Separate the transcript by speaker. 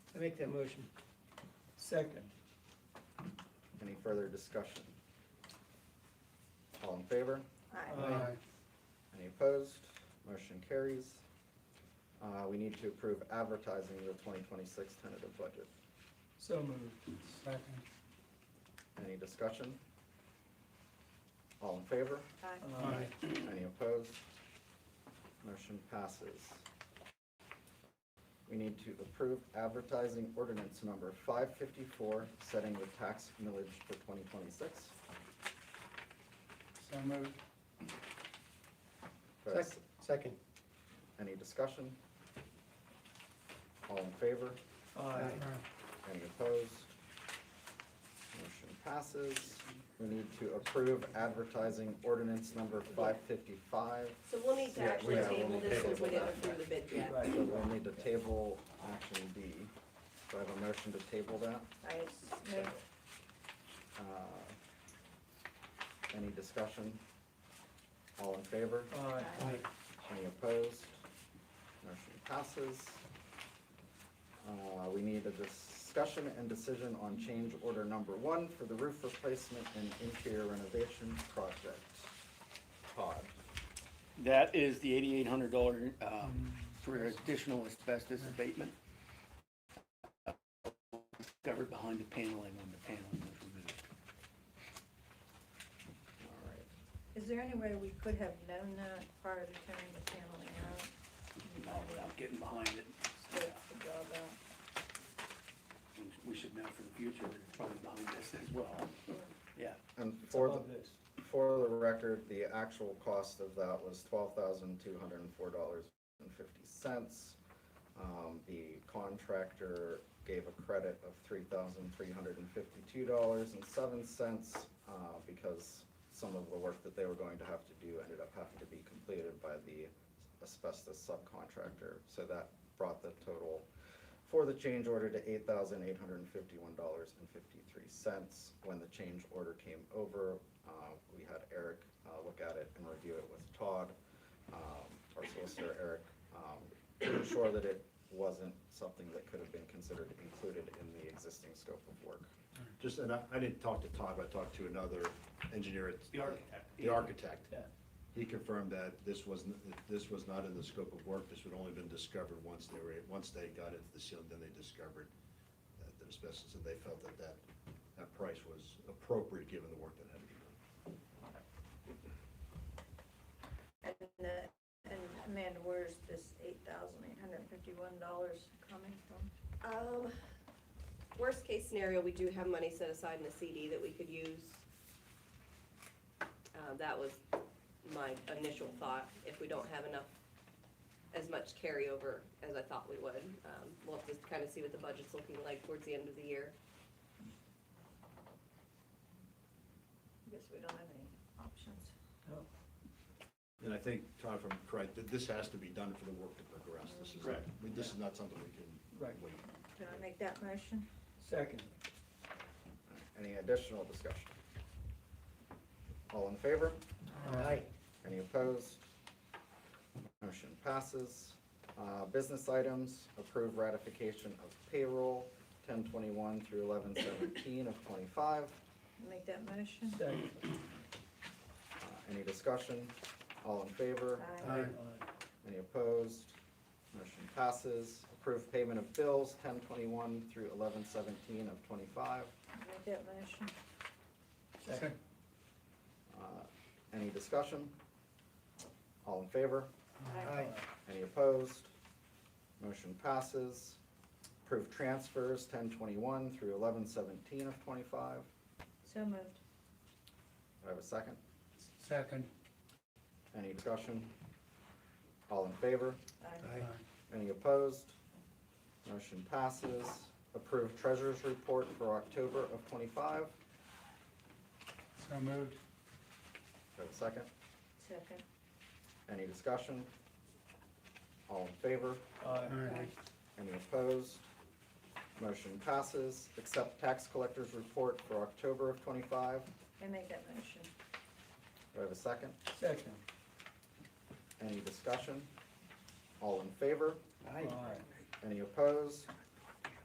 Speaker 1: make that motion.
Speaker 2: Second.
Speaker 3: Any further discussion? All in favor?
Speaker 4: Aye.
Speaker 1: Aye.
Speaker 3: Any opposed? Motion carries. Uh, we need to approve advertising the twenty twenty-six tentative budget.
Speaker 2: So moved.
Speaker 5: Second.
Speaker 3: Any discussion? All in favor?
Speaker 4: Aye.
Speaker 2: Aye.
Speaker 3: Any opposed? Motion passes. We need to approve advertising ordinance number five fifty-four, setting the tax millage for twenty twenty-six.
Speaker 5: So moved.
Speaker 1: Second. Second.
Speaker 3: Any discussion? All in favor?
Speaker 2: Aye.
Speaker 3: Any opposed? Motion passes. We need to approve advertising ordinance number five fifty-five.
Speaker 4: So we'll need to
Speaker 3: Yeah,
Speaker 4: actually
Speaker 3: yeah, we'll
Speaker 4: table
Speaker 3: need to
Speaker 4: this since we
Speaker 3: table
Speaker 4: didn't
Speaker 3: that.
Speaker 4: approve the bid yet.
Speaker 2: Right.
Speaker 3: So we'll need to table action B. Do I have a motion to table that?
Speaker 4: Right.
Speaker 3: Uh, Any discussion? All in favor?
Speaker 2: Aye.
Speaker 4: Aye.
Speaker 3: Any opposed? Motion passes. Uh, We need a discussion and decision on change order number one for the roof replacement and interior renovation project. Todd,
Speaker 6: That is the eighty-eight hundred dollar, um, for additional asbestos abatement. Covered behind the paneling when the paneling was removed.
Speaker 3: all right.
Speaker 7: Is there any way we could have known that prior to turning the paneling out?
Speaker 6: Not without getting behind it.
Speaker 7: That's the job out.
Speaker 6: And We should know for the future, that it's probably behind this as well. Yeah,
Speaker 3: And
Speaker 2: It's
Speaker 3: for
Speaker 2: above
Speaker 3: the,
Speaker 2: this.
Speaker 3: for the record, the actual cost of that was twelve thousand two hundred and four dollars and fifty cents. Um, The contractor gave a credit of three thousand three hundred and fifty-two dollars and seven cents uh, because some of the work that they were going to have to do ended up having to be completed by the asbestos subcontractor. So that brought the total for the change order to eight thousand eight hundred and fifty-one dollars and fifty-three cents. When the change order came over, uh, we had Eric, uh, look at it and review it with Todd, um, our solicitor, Eric, um, to ensure that it wasn't something that could have been considered included in the existing scope of work.
Speaker 8: Just, and I, I didn't talk to Todd, but I talked to another engineer. at-
Speaker 6: The architect.
Speaker 8: The architect.
Speaker 2: Yeah.
Speaker 8: He confirmed that this was, n- that this was not in the scope of work, this would only been discovered once they were, once they got into the ceiling, then they discovered that the asbestos, and they felt that that, that price was appropriate given the work that had to be done.
Speaker 7: And, the- and Amanda, where's this eight thousand eight hundred and fifty-one dollars coming from?
Speaker 4: Um, worst case scenario, we do have money set aside in a CD that we could use. Uh, that was my initial thought, if we don't have enough, as much carryover as I thought we would. Um, we'll have to kind of see what the budget's looking like towards the end of the year.
Speaker 7: I guess we don't have any options.
Speaker 8: And I think, Todd, if I'm correct, that this has to be done for the work to progress, this is,
Speaker 2: Correct.
Speaker 8: we- this is not something we can
Speaker 2: Right.
Speaker 8: wait.
Speaker 7: Can I make that motion?
Speaker 2: Second.
Speaker 3: Any additional discussion? All in favor?
Speaker 1: Aye.
Speaker 3: Any opposed? Motion passes. Uh, Business items, approve ratification of payroll, ten twenty-one through eleven seventeen of twenty-five.
Speaker 7: Make that motion?
Speaker 2: Second.
Speaker 3: Uh, Any discussion? All in favor?
Speaker 7: Aye.
Speaker 2: Aye.
Speaker 3: Any opposed? Motion passes. Approve payment of bills, ten twenty-one through eleven seventeen of twenty-five.
Speaker 7: Make that motion?
Speaker 2: Second.
Speaker 3: Uh, Any discussion? All in favor?
Speaker 7: Aye.
Speaker 3: Any opposed? Motion passes. Approve transfers ten twenty-one through eleven seventeen of twenty-five.
Speaker 7: So moved.
Speaker 3: Do I have a second?
Speaker 5: Second.
Speaker 3: Any discussion? All in favor?
Speaker 7: Aye.
Speaker 3: Any opposed? Motion passes. Approve treasurer's report for October of twenty-five. Do
Speaker 5: So moved.
Speaker 3: I have a second?
Speaker 7: Second.
Speaker 3: Any discussion? All in favor?
Speaker 2: Aye.
Speaker 3: Any opposed? Motion passes. Accept tax collector's report for October of twenty-five.
Speaker 7: I make that motion?
Speaker 3: Do I have a second?
Speaker 2: Second.
Speaker 3: Any discussion? All in favor?
Speaker 2: Aye.
Speaker 3: Any opposed?